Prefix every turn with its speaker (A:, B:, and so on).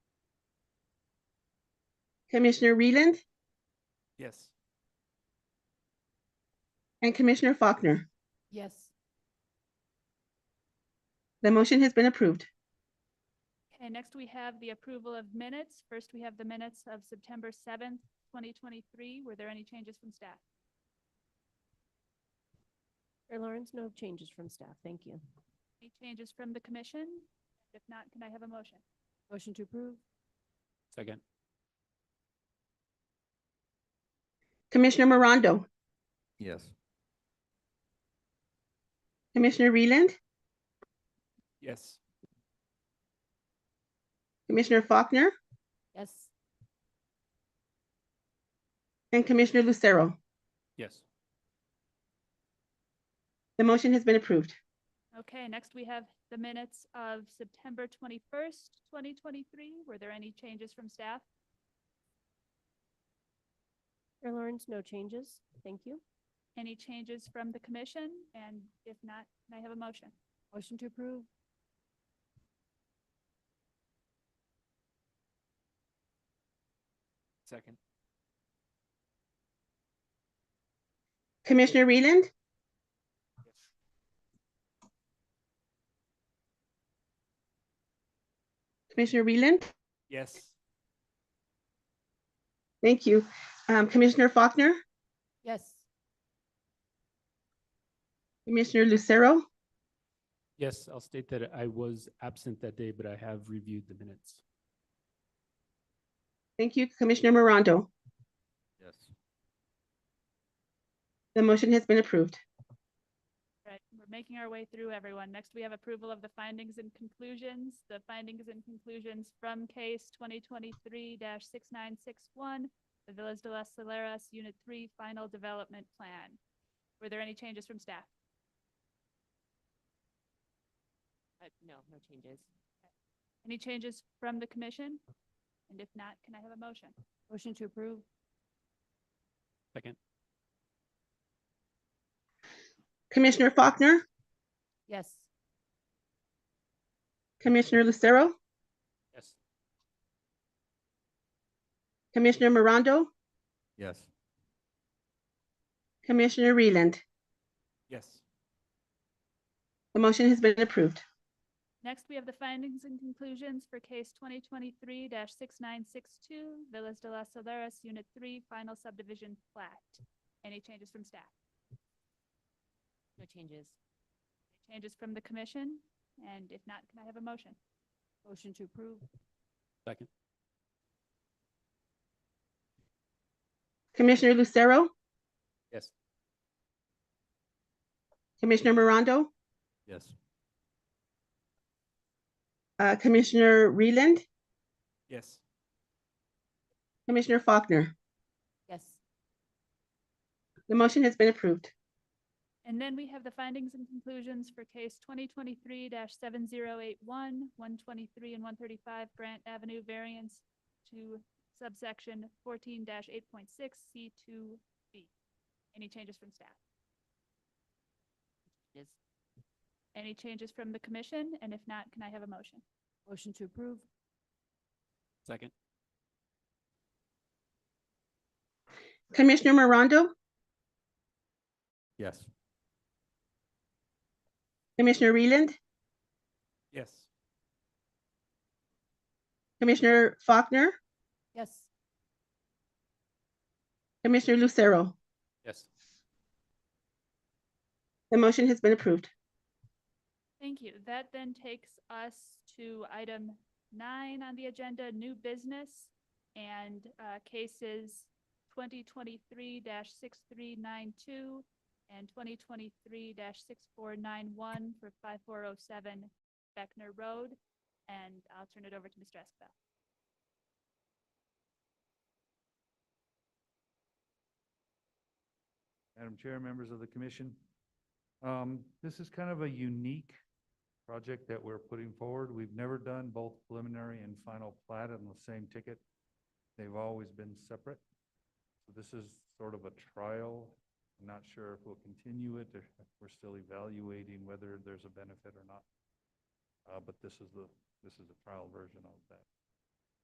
A: Commissioner Reland
B: Yes.
A: and Commissioner Faulkner.
C: Yes.
A: The motion has been approved.
C: Okay, next we have the approval of minutes. First, we have the minutes of September seventh, twenty twenty-three. Were there any changes from staff?
D: Chair Lawrence, no changes from staff. Thank you.
C: Any changes from the commission? If not, can I have a motion?
D: Motion to approve?
B: Second.
A: Commissioner Morondo,
B: Yes.
A: Commissioner Reland,
B: Yes.
A: Commissioner Faulkner,
D: Yes.
A: and Commissioner Lucero.
B: Yes.
A: The motion has been approved.
C: Okay, next we have the minutes of September twenty-first, twenty twenty-three. Were there any changes from staff?
D: Chair Lawrence, no changes. Thank you.
C: Any changes from the commission? And if not, can I have a motion?
D: Motion to approve?
B: Second.
A: Commissioner Reland, Commissioner Reland,
B: Yes.
A: thank you. Um, Commissioner Faulkner,
D: Yes.
A: Commissioner Lucero,
B: Yes, I'll state that I was absent that day, but I have reviewed the minutes.
A: thank you. Commissioner Morondo,
B: Yes.
A: the motion has been approved.
C: Right, we're making our way through everyone. Next, we have approval of the findings and conclusions. The findings and conclusions from case twenty twenty-three six nine six one, the Villas de las Saleras Unit Three Final Development Plan. Were there any changes from staff?
D: No, no changes.
C: Any changes from the commission? And if not, can I have a motion?
D: Motion to approve?
B: Second.
A: Commissioner Faulkner,
D: Yes.
A: Commissioner Lucero,
B: Yes.
A: Commissioner Morondo,
B: Yes.
A: Commissioner Reland.
B: Yes.
A: The motion has been approved.
C: Next, we have the findings and conclusions for case twenty twenty-three six nine six two, Villas de las Saleras Unit Three Final Subdivision Plat. Any changes from staff?
D: No changes.
C: Changes from the commission? And if not, can I have a motion?
D: Motion to approve?
B: Second.
A: Commissioner Lucero,
B: Yes.
A: Commissioner Morondo,
B: Yes.
A: uh, Commissioner Reland,
B: Yes.
A: Commissioner Faulkner.
D: Yes.
A: The motion has been approved.
C: And then we have the findings and conclusions for case twenty twenty-three 7081 123 and one thirty-five Grant Avenue variance to subsection fourteen eight point six C two B. Any changes from staff?
D: Yes.
C: Any changes from the commission? And if not, can I have a motion?
D: Motion to approve?
B: Second.
A: Commissioner Morondo,
B: Yes.
A: Commissioner Reland,
B: Yes.
A: Commissioner Faulkner,
D: Yes.
A: Commissioner Lucero.
B: Yes.
A: The motion has been approved.
C: Thank you. That then takes us to item nine on the agenda, new business and uh, cases twenty twenty-three six three nine two and twenty twenty-three six four nine one for five four oh seven Beckner Road. And I'll turn it over to Mr. Escabel.
E: Madam Chair, members of the commission. Um, This is kind of a unique project that we're putting forward. We've never done both preliminary and final plat on the same ticket. They've always been separate. So This is sort of a trial. I'm not sure if we'll continue it. or if We're still evaluating whether there's a benefit or not. Uh, But this is the, this is the trial version of that.